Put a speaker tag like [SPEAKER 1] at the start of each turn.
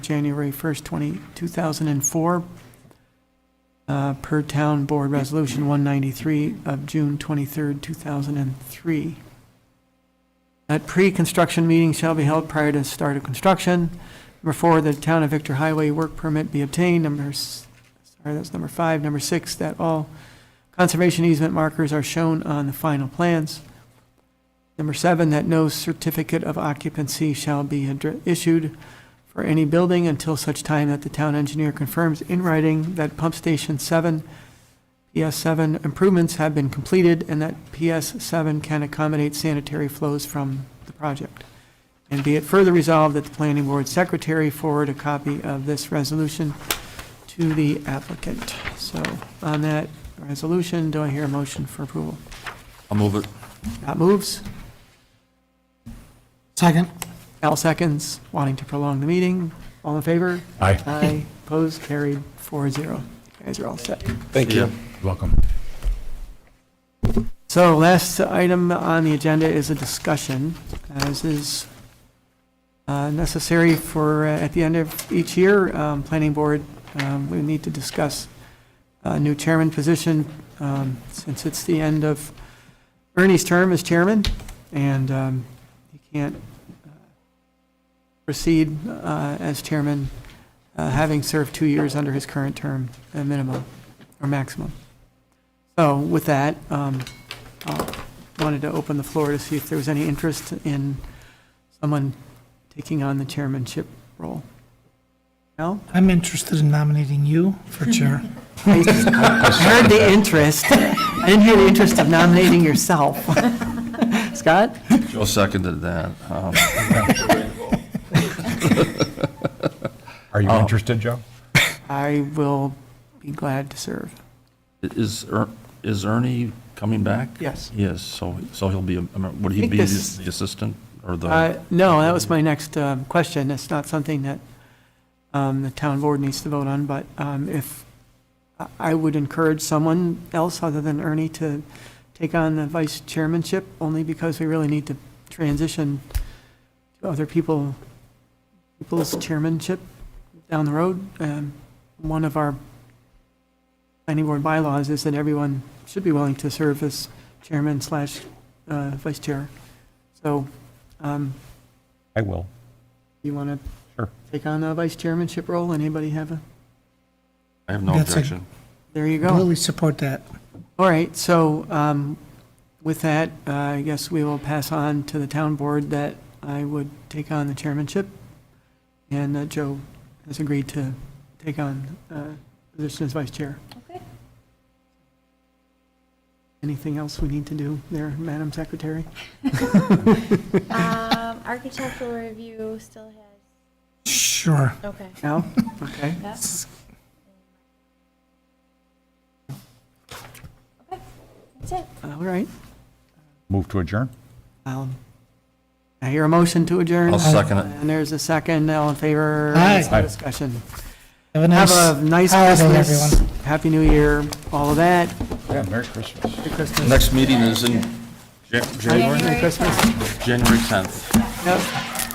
[SPEAKER 1] January 1st, 20 2004, uh, per Town Board Resolution 193 of June 23rd, 2003. That pre-construction meeting shall be held prior to start of construction. Number four, the Town of Victor Highway work permit be obtained. Number, s- sorry, that's number five. Number six, that all conservation easement markers are shown on the final plans. Number seven, that no certificate of occupancy shall be addre- issued for any building until such time that the town engineer confirms in writing that pump station seven, PS seven improvements have been completed and that PS seven can accommodate sanitary flows from the project. And be it further resolved that the planning board secretary forward a copy of this resolution to the applicant. So on that resolution, do I hear a motion for approval?
[SPEAKER 2] I'll move it.
[SPEAKER 1] Scott moves.
[SPEAKER 3] Second.
[SPEAKER 1] Al seconds, wanting to prolong the meeting. All in favor?
[SPEAKER 4] Aye.
[SPEAKER 1] Aye. Opposed, carried, four zero. You guys are all set.
[SPEAKER 2] Thank you.
[SPEAKER 4] Welcome.
[SPEAKER 1] So last item on the agenda is a discussion, as is uh, necessary for, uh, at the end of each year, um, planning board, um, we need to discuss a new chairman position, um, since it's the end of Ernie's term as chairman, and um, he can't uh, proceed uh, as chairman, uh, having served two years under his current term, a minimum, or maximum. So with that, um, uh, wanted to open the floor to see if there was any interest in someone taking on the chairmanship role. Al?
[SPEAKER 3] I'm interested in nominating you for chair.
[SPEAKER 1] I heard the interest. I didn't hear the interest of nominating yourself. Scott?
[SPEAKER 2] Joe seconded that. Um,
[SPEAKER 4] Are you interested, Joe?
[SPEAKER 1] I will be glad to serve.
[SPEAKER 2] Is, Er- is Ernie coming back?
[SPEAKER 1] Yes.
[SPEAKER 2] Yes, so, so he'll be, a- I mean, would he
[SPEAKER 1] think
[SPEAKER 2] be
[SPEAKER 1] this-
[SPEAKER 2] the assistant or the?
[SPEAKER 1] Uh, No, that was my next um, question. It's not something that um, the town board needs to vote on, but um, if, I- I would encourage someone else other than Ernie to take on the vice chairmanship, only because we really need to transition to other people, people's chairmanship down the road. Um, One of our planning board bylaws is that everyone should be willing to serve as chairman slash uh, vice chair. So um,
[SPEAKER 4] I will.
[SPEAKER 1] you want to
[SPEAKER 4] Sure.
[SPEAKER 1] take on the vice chairmanship role? Anybody have a,
[SPEAKER 2] I have no
[SPEAKER 3] That's a-
[SPEAKER 2] objection.
[SPEAKER 1] there you go.
[SPEAKER 3] Really support that.
[SPEAKER 1] All right, so um, with that, uh, I guess we will pass on to the town board that I would take on the chairmanship, and that Joe has agreed to take on uh, position as vice chair.
[SPEAKER 5] Okay.
[SPEAKER 1] Anything else we need to do there, Madam Secretary?
[SPEAKER 5] Um, architectural review still has,
[SPEAKER 3] Sure.
[SPEAKER 5] okay.
[SPEAKER 1] No? Okay.
[SPEAKER 5] That's it.
[SPEAKER 1] All right.
[SPEAKER 4] Move to adjourn?
[SPEAKER 1] I'll- I hear a motion to adjourn.
[SPEAKER 2] I'll second it.
[SPEAKER 1] And there's a second. All in favor?
[SPEAKER 3] Aye.
[SPEAKER 1] There's no
[SPEAKER 4] Aye.
[SPEAKER 1] Discussion.
[SPEAKER 3] Have a nice.
[SPEAKER 1] Have a nice
[SPEAKER 3] holiday,
[SPEAKER 1] Christmas,
[SPEAKER 3] everyone.
[SPEAKER 1] Happy New Year, all of that.
[SPEAKER 4] Yeah, Merry Christmas.
[SPEAKER 1] Merry Christmas.
[SPEAKER 2] Next meeting is in Jan- January,
[SPEAKER 5] January
[SPEAKER 1] Christmas.
[SPEAKER 2] January 10th.
[SPEAKER 1] Yep.